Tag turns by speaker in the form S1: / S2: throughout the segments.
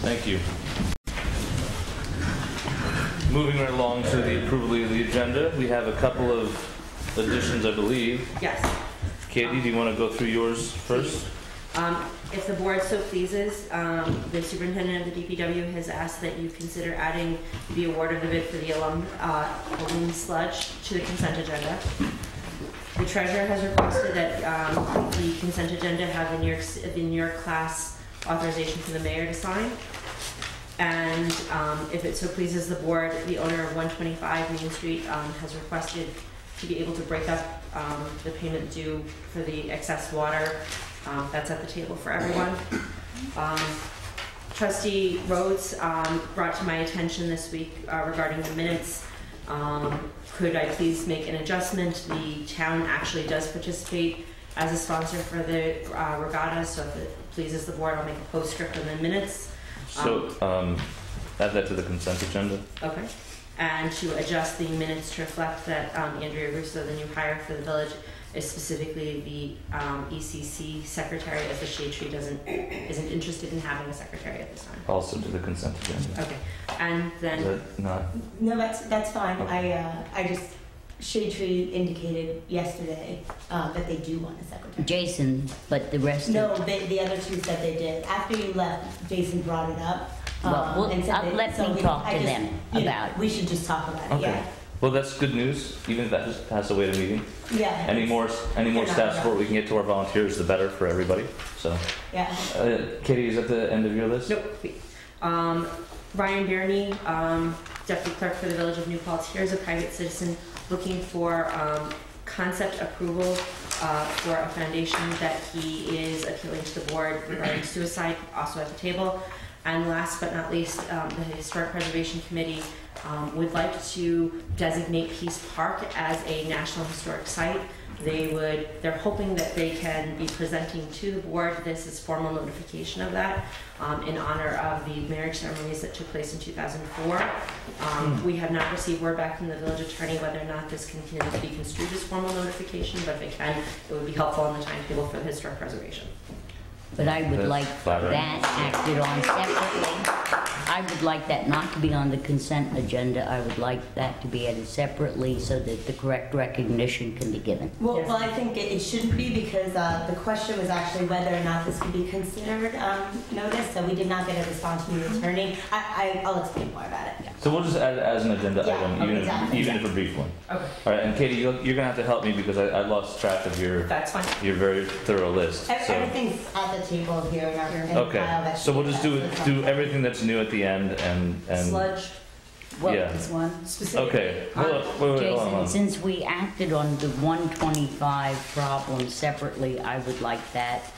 S1: Thank you. Moving right along to the approval of the agenda, we have a couple of additions, I believe.
S2: Yes.
S1: Katie, do you want to go through yours first?
S2: Um, If the board so pleases, um, the superintendent of the DPW has asked that you consider adding the award of the bid for the alum, uh, alum sludge to the consent agenda. The treasurer has requested that um, the consent agenda have the New York, the New York class authorization from the mayor to sign. And um, if it so pleases the board, the owner of 125 Main Street um, has requested to be able to break up um, the payment due for the excess water um, that's at the table for everyone. Um, Trustee Rhodes um, brought to my attention this week uh, regarding the minutes. Um, Could I please make an adjustment? The town actually does participate as a sponsor for the uh, regatta, so if it pleases the board, I'll make a post script in the minutes.
S1: So, um, add that to the consent agenda.
S2: Okay. And to adjust the minutes to reflect that um, Andrea Russo, the new hire for the village, is specifically the um, ECC secretary, as the shade tree doesn't, isn't interested in having a secretary at this time.
S1: Also to the consent agenda.
S2: Okay, and
S1: Is
S2: then,
S1: that not,
S3: No, that's, that's fine. I, uh, I just, Shade Tree indicated yesterday, uh, that they do want a secretary.
S4: Jason, but the rest
S3: No,
S4: of
S3: the, the other two said they did. After you left, Jason brought it up,
S4: Well,
S3: um,
S4: we'll-
S3: and said
S4: uh,
S3: that.
S4: let
S3: so
S4: me
S3: we-
S4: talk
S3: I
S4: to
S3: just-
S4: them
S3: you know,
S4: about it.
S3: We should just talk about it,
S1: Okay.
S3: yeah.
S1: well, that's good news, even if that just has to wait a meeting.
S3: Yeah.
S1: Any more, any more staff support we can get to our volunteers, the better for everybody, so.
S3: Yeah.
S1: Uh, Katie, is that the end of your list?
S2: nope, wait. Um, Ryan Barney, um, deputy clerk for the village of New Paltz, here's a private citizen looking for um, concept approval uh, for a foundation that he is appealing to the board regarding suicide, also at the table. And last but not least, um, the Historic Preservation Committee um, would like to designate Peace Park as a National Historic Site. They would, they're hoping that they can be presenting to the board, this is formal notification of that, um, in honor of the marriage ceremonies that took place in 2004. Um, We have not received word back from the village attorney whether or not this can can be construed as formal notification, but if it can, it would be helpful on the timetable for the historic preservation.
S4: But I would
S1: That's
S4: like
S1: flattering.
S4: that acted on separately. I would like that not to be on the consent agenda. I would like that to be added separately so that the correct recognition can be given.
S3: Well,
S2: Yes.
S3: well, I think it, it shouldn't be because uh, the question was actually whether or not this could be considered um, notice, so we did not get a response from the attorney. I, I, I'll explain more about it.
S1: So we'll just add it as an agenda
S3: Yeah,
S1: item,
S3: okay,
S1: even, if,
S3: exactly,
S1: even
S3: yeah.
S1: if a brief one.
S2: Okay.
S1: All right, and Katie, you're, you're gonna have to help me because I, I lost track of your
S2: That's fine.
S1: your very thorough list.
S3: Ev-
S1: So
S3: Everything's at the table here in our in the file
S1: okay,
S3: that
S1: so
S3: she
S1: we'll just do
S3: has.
S1: do everything that's new at the end and and
S2: Sludge,
S4: Well,
S1: yeah.
S4: one.
S1: Okay, hold up, wait, wait, hold on,
S4: Jason,
S1: hold on.
S4: since we acted on the 125 problem separately, I would like that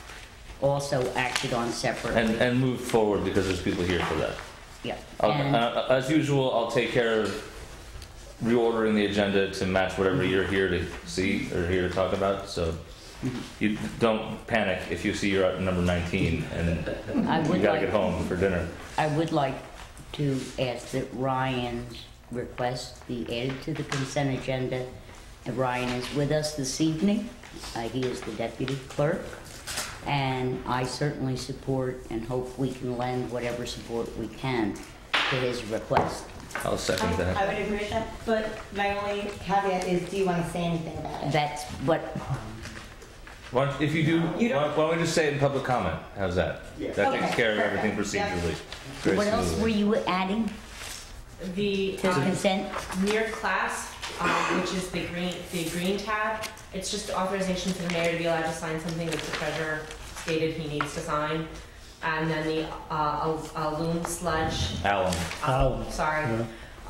S4: also acted on
S1: And
S4: separately.
S1: and move forward because there's people here for that.
S4: Yeah.
S1: I'll,
S4: And-
S1: uh, as usual, I'll take care of reordering the agenda to match whatever you're here to see or here to talk about. So you don't panic if you see you're at number 19 and
S4: I
S1: you
S4: would
S1: gotta
S4: like-
S1: get home for dinner.
S4: I would like to ask that Ryan's request be added to the consent agenda. And Ryan is with us this evening. Uh, he is the deputy clerk. And I certainly support and hope we can lend whatever support we can to his request.
S1: I'll second
S3: I,
S1: that.
S3: I would agree with that, but my only caveat is, do you want to say anything about it?
S4: That's what,
S1: Why don't- if you do,
S3: You
S1: why,
S3: don't-
S1: why don't we just say it in public comment? How's that? That
S3: Okay,
S1: takes care of everything
S3: perfect. Yeah.
S1: procedurally. very
S4: what else
S1: smoothly.
S4: were you adding
S2: the.
S4: to
S2: um,
S4: consent?
S2: near class, um, which is the green, the green tab, it's just authorization for the mayor to be allowed to sign something that the treasurer stated he needs to sign. And then the, uh, a loom sludge,
S1: Alan,
S2: uh, sorry,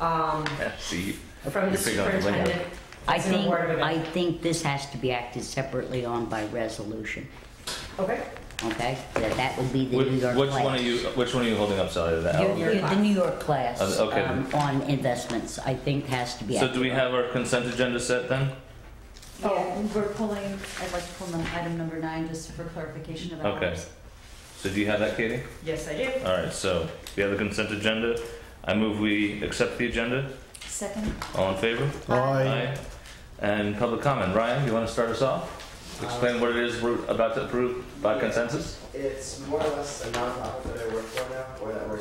S2: um,
S1: see,
S2: from the
S1: You're picking up the lingo.
S2: superintendent.
S4: I
S2: It's an
S4: think,
S2: award of
S4: I
S2: event.
S4: think this has to be acted separately on by resolution,
S2: Okay.
S4: okay? That that would be the
S1: which,
S4: New York
S1: which one
S4: class.
S1: are you? Which one are you holding up, Sally? The Alan?
S2: Your
S4: You're- you're The
S2: class.
S4: New York class
S1: Uh, okay.
S4: um, on investments, I think, has to be.
S1: So do we
S4: active.
S1: have our consent agenda set then?
S3: Yeah.
S5: Oh, we're pulling, I'd like to pull num- item number nine just for clarification of
S1: Okay.
S5: hours.
S1: So do you have that, Katie?
S2: Yes, I do.
S1: All right, so we have the consent agenda. I move we accept the agenda.
S5: Second,
S1: All in favor? Aye. And public comment. Ryan, you want to start us off? Explain what it is we're about to approve by consensus?
S6: It's more or less a nonprofit that I work for now, or that we're